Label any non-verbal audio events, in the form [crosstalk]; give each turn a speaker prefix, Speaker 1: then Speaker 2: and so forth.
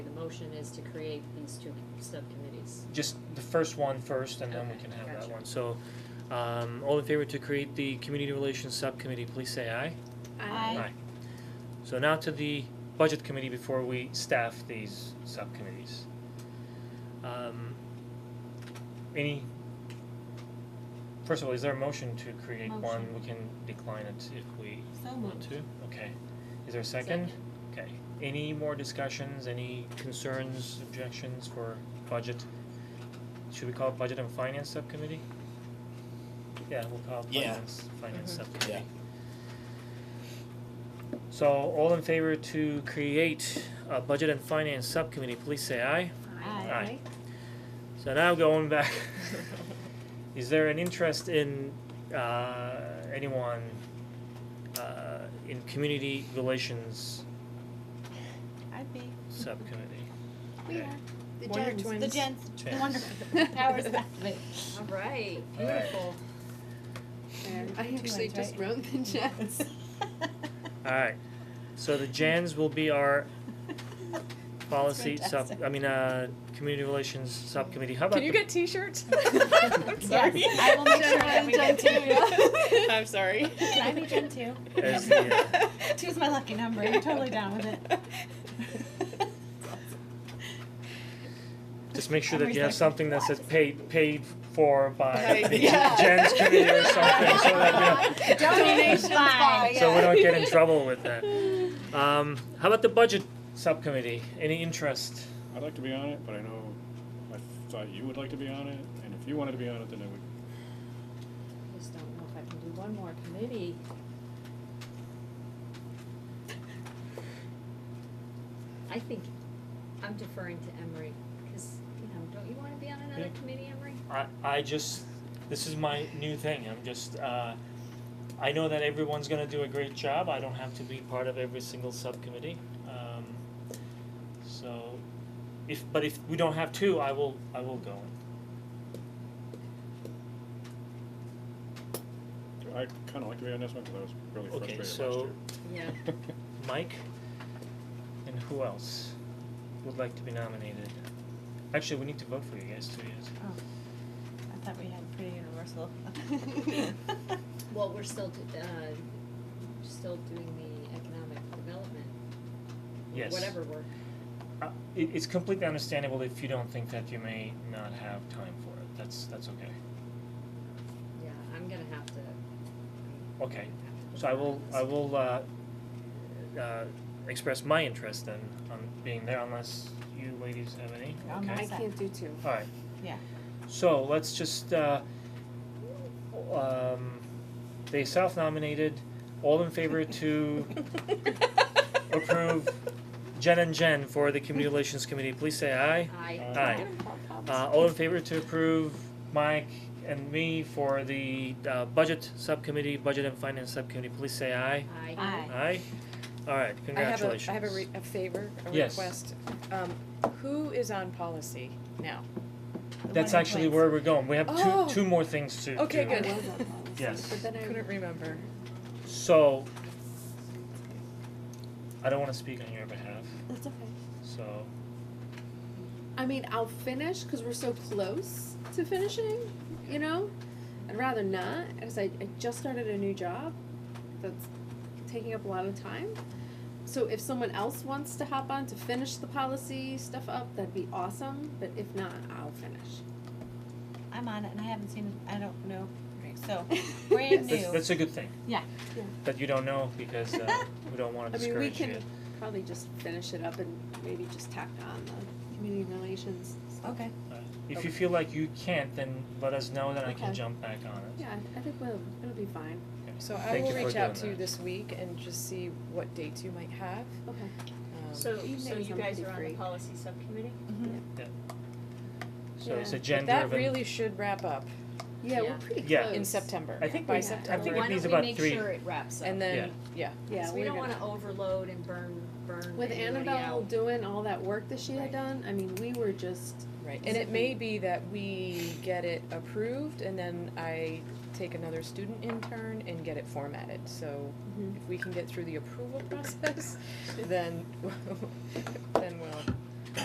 Speaker 1: motion is to create these two subcommittees.
Speaker 2: Just the first one first, and then we
Speaker 1: Okay,
Speaker 2: can have that
Speaker 1: gotcha.
Speaker 2: one.
Speaker 3: So, um, all in favor to create the community relations subcommittee, please say aye.
Speaker 4: Aye.
Speaker 3: So now to the budget committee before we staff these subcommittees. Um, any, first of all, is there a motion to create one?
Speaker 4: Motion.
Speaker 3: We can decline it if we
Speaker 4: So
Speaker 3: want
Speaker 4: moved.
Speaker 3: to. Okay. Is there a second?
Speaker 1: Second.
Speaker 3: Okay. Any more discussions, any concerns, objections for budget? Should we call it budget and finance subcommittee? Yeah, we'll call it
Speaker 5: Yeah.
Speaker 3: finance, finance
Speaker 1: Mhm.
Speaker 3: subcommittee. So all in favor to create a budget and finance subcommittee, please say aye.
Speaker 4: Aye.
Speaker 3: Aye. So now going back, [laughs] is there an interest in uh anyone uh in community relations
Speaker 4: I'd be.
Speaker 3: subcommittee?
Speaker 4: We
Speaker 3: Okay.
Speaker 4: are.
Speaker 1: The
Speaker 4: Wonder
Speaker 1: Jens.
Speaker 4: The [laughs] Jens.
Speaker 3: Jens.
Speaker 4: Wonderful. Powers that be.
Speaker 2: All
Speaker 1: All right,
Speaker 2: right.
Speaker 1: beautiful.
Speaker 4: I actually just wrote the
Speaker 6: [laughs]
Speaker 4: Jens.
Speaker 3: Alright, so the Jans will be
Speaker 4: [laughs]
Speaker 3: our policy sub,
Speaker 4: fantastic.
Speaker 3: I mean, uh community relations subcommittee, how about
Speaker 6: Can
Speaker 3: the
Speaker 6: you get t-shirts?
Speaker 1: [laughs]
Speaker 6: I'm sorry.
Speaker 4: Yes, I will make sure
Speaker 6: Jen,
Speaker 4: I'm
Speaker 6: we
Speaker 4: Jen
Speaker 6: get
Speaker 4: two.
Speaker 6: t- I'm sorry.
Speaker 1: [laughs]
Speaker 4: Can I be Jen two?
Speaker 3: as the, uh,
Speaker 4: [laughs] Two's my lucky number, you're totally down [laughs] with it.
Speaker 3: just make sure
Speaker 4: I'm
Speaker 3: that you have
Speaker 4: recycling.
Speaker 3: something that says paid paid for by
Speaker 4: [laughs]
Speaker 6: Right,
Speaker 3: the
Speaker 6: [laughs] yeah.
Speaker 3: Jans committee or something, so that, you know,
Speaker 6: [laughs]
Speaker 4: Donations by.
Speaker 3: So we don't get in trouble with that. Um, how about the budget subcommittee? Any interest?
Speaker 7: I'd like to be on it, but I know, I thought you would like to be on it, and if you wanted to be on it, then I would
Speaker 1: I just don't know if I can do one more committee. I think I'm deferring to Emery, cause, you know, don't you wanna be on another
Speaker 3: Yeah.
Speaker 1: committee, Emery?
Speaker 3: I, I just, this is my new thing. I'm just, uh, I know that everyone's gonna do a great job. I don't have to be part of every single subcommittee. Um, so, if, but if we don't have two, I will, I will go in.
Speaker 7: I'd kinda like to be on this one, cause I was really
Speaker 3: Okay,
Speaker 7: frustrated last
Speaker 3: so
Speaker 7: year.
Speaker 1: Yeah.
Speaker 7: [laughs]
Speaker 3: Mike, and who else would like to be nominated? Actually, we need to vote for you guys too,
Speaker 4: Oh.
Speaker 3: yes.
Speaker 4: I thought we had pretty [laughs] universal.
Speaker 1: Well, we're still, d- uh, still doing the economic development,
Speaker 3: Yes.
Speaker 1: whatever work.
Speaker 3: Uh, it, it's completely understandable if you don't think that you may not have time for it. That's that's okay.
Speaker 1: Yeah, I'm gonna have to. I'm
Speaker 3: Okay.
Speaker 1: gonna have to
Speaker 3: So I
Speaker 1: defer
Speaker 3: will
Speaker 1: on this.
Speaker 3: I will uh, uh, express my interest then on being there, unless you ladies have any.
Speaker 4: Yeah, I'm
Speaker 3: okay.
Speaker 4: not-
Speaker 6: I can't do two.
Speaker 3: All right.
Speaker 4: Yeah.
Speaker 3: So let's just uh, um, they self-nominated. All in favor
Speaker 4: [laughs]
Speaker 3: to
Speaker 6: [laughs]
Speaker 3: approve Jen and Jen for the Community Relations Committee. Please say aye.
Speaker 1: I.
Speaker 3: Aye. Uh, all in favor to approve Mike and me for the, uh, budget subcommittee, budget and finance subcommittee, please say aye.
Speaker 1: I.
Speaker 4: Aye.
Speaker 3: Aye? Alright,
Speaker 6: I have a,
Speaker 3: congratulations.
Speaker 6: I have a re- a favor, a
Speaker 3: Yes.
Speaker 6: request. Um, who is on policy now?
Speaker 3: That's actually where we're going, we have
Speaker 6: Oh.
Speaker 3: two, two more things to do.
Speaker 6: Okay, good.
Speaker 3: Yes,
Speaker 6: But then I couldn't remember.
Speaker 3: so. I don't wanna speak on your behalf,
Speaker 4: That's okay.
Speaker 3: so,
Speaker 6: I mean, I'll finish because we're so close to finishing, you know? I'd rather not because I, I just started a new job that's taking up a lot of time. So if someone else wants to hop on to finish the policy stuff up, that'd be awesome. But if not, I'll finish.
Speaker 4: I'm on it and I haven't seen it, I don't know,
Speaker 6: Right.
Speaker 4: so brand
Speaker 3: that's, [laughs]
Speaker 4: new.
Speaker 3: that's a good thing.
Speaker 4: Yeah.
Speaker 6: Yeah.
Speaker 3: That you don't know, because,
Speaker 6: [laughs]
Speaker 3: uh, we don't wanna
Speaker 6: I mean, we
Speaker 3: discourage you.
Speaker 6: can probably just finish it up and maybe just tack on the community relations stuff.
Speaker 4: Okay.
Speaker 3: Uh, If you feel like you can't, then let us know, then I can
Speaker 6: Okay.
Speaker 3: jump back on it.
Speaker 6: Yeah, I think we'll, it'll be fine.
Speaker 8: So I
Speaker 3: Thank
Speaker 8: will
Speaker 3: you for
Speaker 8: reach out
Speaker 3: doing
Speaker 8: to you
Speaker 3: that.
Speaker 8: this week and just see what dates you might have.
Speaker 6: Okay.
Speaker 8: Um,
Speaker 1: So, so
Speaker 6: Evenings
Speaker 1: you
Speaker 6: I'm
Speaker 1: guys
Speaker 6: pretty
Speaker 1: are on the
Speaker 6: free.
Speaker 1: policy subcommittee?
Speaker 4: Mm-hmm.
Speaker 3: So it's
Speaker 6: Yeah.
Speaker 3: a
Speaker 6: But
Speaker 8: But
Speaker 3: gender
Speaker 8: that
Speaker 3: driven.
Speaker 8: really should wrap up
Speaker 1: Yeah.
Speaker 6: Yeah, we're pretty
Speaker 3: Yeah.
Speaker 6: close.
Speaker 8: in September,
Speaker 3: I think
Speaker 8: by
Speaker 6: we-
Speaker 8: September.
Speaker 3: I think
Speaker 1: Why
Speaker 3: it needs
Speaker 1: don't we
Speaker 3: about
Speaker 1: make
Speaker 3: three.
Speaker 1: sure it wraps up?
Speaker 8: And then, yeah,
Speaker 6: Yeah,
Speaker 1: So we
Speaker 6: we're
Speaker 1: don't
Speaker 6: gonna-
Speaker 1: wanna overload and burn, burn
Speaker 6: With
Speaker 1: anybody
Speaker 6: Annabelle
Speaker 1: out.
Speaker 6: doing all that work that she
Speaker 1: Right.
Speaker 6: had done, I mean, we were just,
Speaker 8: right, and it may be that we get it approved and then I take another student intern and get it formatted, so
Speaker 6: Mhm.
Speaker 1: Mm-hmm.
Speaker 8: [laughs] if we can get through the approval process, [laughs] then, then